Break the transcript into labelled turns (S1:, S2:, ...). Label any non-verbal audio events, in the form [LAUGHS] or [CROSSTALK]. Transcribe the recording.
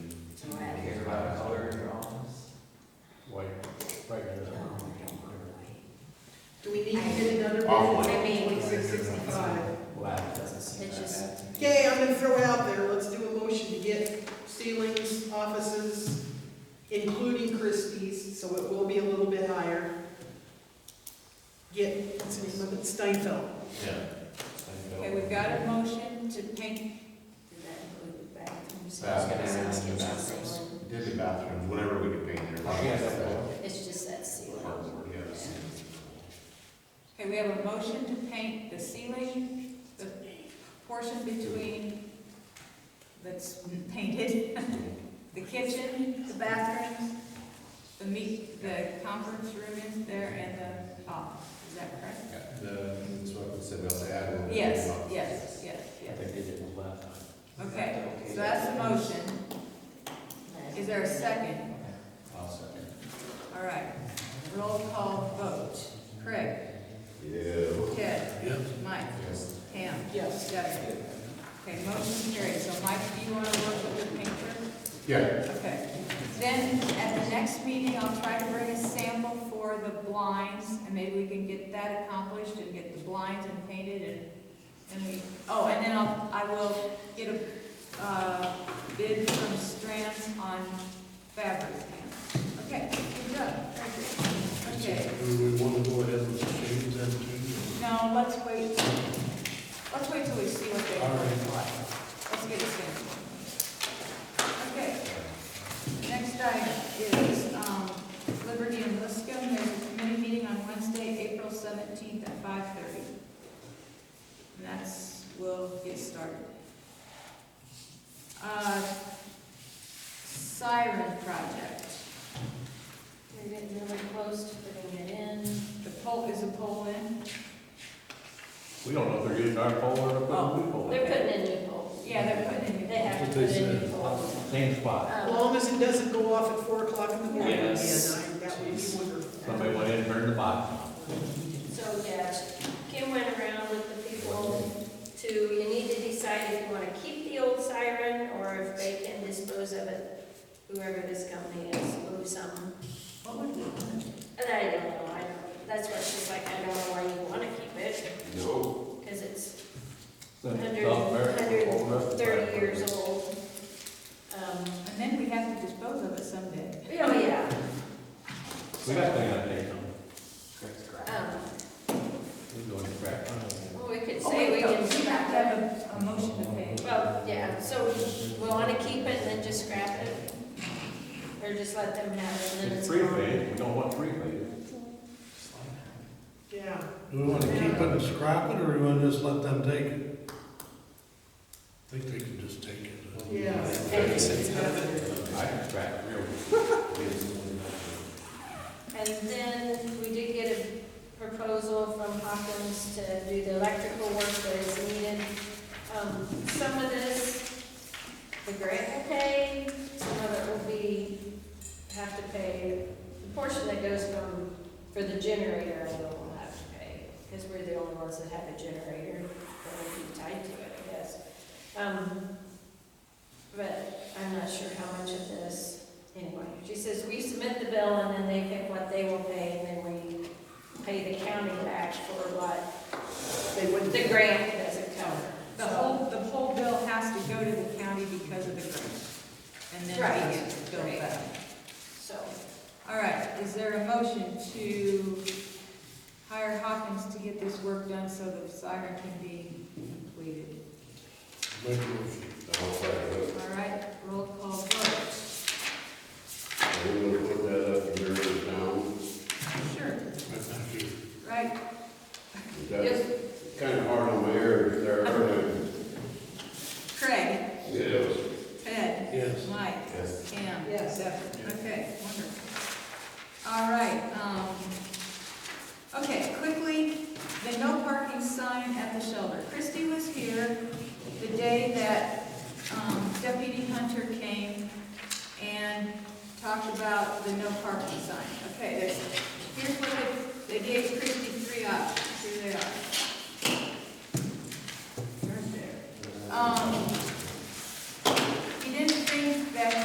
S1: Because, I mean,
S2: Twenty-six sixty-five.
S3: Wow, it doesn't seem
S1: It's
S3: that
S1: just-
S3: bad to me.
S2: Okay, I'm gonna throw out there, let's do a motion to get ceilings, offices, including Christie's, so it will be a little bit higher. Get, what's the name of it, Steinfeld.
S4: Yeah.
S1: okay, we've got a motion to paint, did that include the bathrooms?
S4: Uh, Bathrooms,
S1: Kitchen,
S3: bathrooms.
S1: ceiling?
S4: Did the bathroom, whatever we could paint there.
S3: Yeah, that's cool.
S1: It's just that ceiling.
S4: Yes.
S1: Okay, we have a motion to paint the ceiling, the portion between, that's painted, [LAUGHS] the kitchen, the bathrooms, the meet, the conference room is there, and the office, is that correct?
S4: Yeah, The, that's what I said, we also add a little bit.
S1: Yes,
S4: of-
S1: yes, yes,
S3: I
S1: yes.
S3: think they did it last time.
S1: Okay, so that's the motion. Is there a second?
S4: I'll second.
S1: All right, roll call vote. Craig?
S4: Yeah.
S1: Ted? Mike?
S4: Yes.
S1: Pam?
S2: Yes.
S1: Debbie? Okay, motion carried. So Mike, do you want to work with the painter?
S4: Yeah,
S1: Okay. Then at the next meeting, I'll try to bring a sample for the blinds and maybe we can get that accomplished and get the blinds and painted and, and we, oh, and then I'll, I will get a, uh, bid from Strands on fabric. Okay, good job. Very good. Okay.
S5: Do we want to go ahead with the change then too?
S1: No, let's wait, let's wait till we see what they
S5: All
S1: are
S5: right.
S1: Let's get a sample. Okay. Next item is um, Liberty and Liscum, there's a committee meeting on Wednesday, April seventeenth at five thirty. And that's, we'll get started. Uh, Siren project,
S6: We're getting really close to putting it in.
S1: the poll, is the poll in?
S4: we don't know if they're using our pole or if
S1: Oh,
S4: they're pole.
S6: They're putting in new poles.
S1: Yeah, they're putting it in.
S6: They have to put in new poles.
S3: Same spot.
S1: Oh.
S2: As
S6: Um,
S2: long as it doesn't go off at four o'clock in the morning, and
S3: Yes.
S2: I, that would be wonderful.
S4: Somebody went in and turned the bottom.
S6: So, yeah, Kim went around with the people to, you need to decide if you want to keep the old siren or if they can dispose of it, whoever this company is, move some.
S1: What would we want?
S6: And I don't know, I don't, that's what she's like, I don't know why you want to keep it,
S4: No.
S6: because it's
S4: Then
S6: hundred,
S4: South America, pole
S6: hundred
S4: rest.
S6: thirty years old. Um,
S1: And then we have to dispose of it someday.
S6: you know, yeah,
S4: We got thing on paper.
S3: Correct, correct.
S1: Oh.
S6: um,
S4: We're going to crack.
S6: well, we could
S1: Oh,
S6: say we can.
S1: We have to have a, a motion to pay.
S6: Well, yeah, so we want to keep it and then just scrap it? Or just let them have it and then
S4: It's
S6: it's
S4: free
S6: gone?
S4: fade, we don't want free fade.
S2: Yeah.
S5: Do we want to keep it and scrap it, or do we want to just let them take it? I think they can just take it.
S2: Yeah.
S4: I can crack real.
S6: And then we did get a proposal from Hawkins to do the electrical work that is needed. Um, Some of this, the grant will pay, some of it will be, have to pay. The portion that goes from, for the generator, I know we'll have to pay, because we're the only ones that have a generator that will be tied to it, I guess. Um, But I'm not sure how much of this anyway, she says, we submit the bill and then they pick what they will pay and then we pay the county back for what
S2: They wouldn't.
S6: the grant doesn't cover.
S1: The whole, the whole bill has to go to the county because of the grant. And then
S6: Right.
S1: we get the bill back.
S6: So,
S1: All right, is there a motion to hire Hawkins to get this work done so the siren can be completed?
S5: Make a motion.
S7: I will second
S1: All right, roll call vote.
S7: that. Are we gonna put that up in there in town?
S1: Sure.
S5: Thank you.
S1: Right,
S7: That's kind of hard on my ears there, aren't
S1: Craig,
S7: it? Yes.
S1: Ted,
S5: Yes.
S1: Mike,
S7: Yes.
S1: Pam.
S2: Yes.
S1: Deborah. Okay, wonderful. All right, um, okay, quickly, the no parking sign at the shelter. Christie was here the day that, um, Deputy Hunter came and talked about the no parking sign. Okay, there's, here's what they, they gave Christie Um,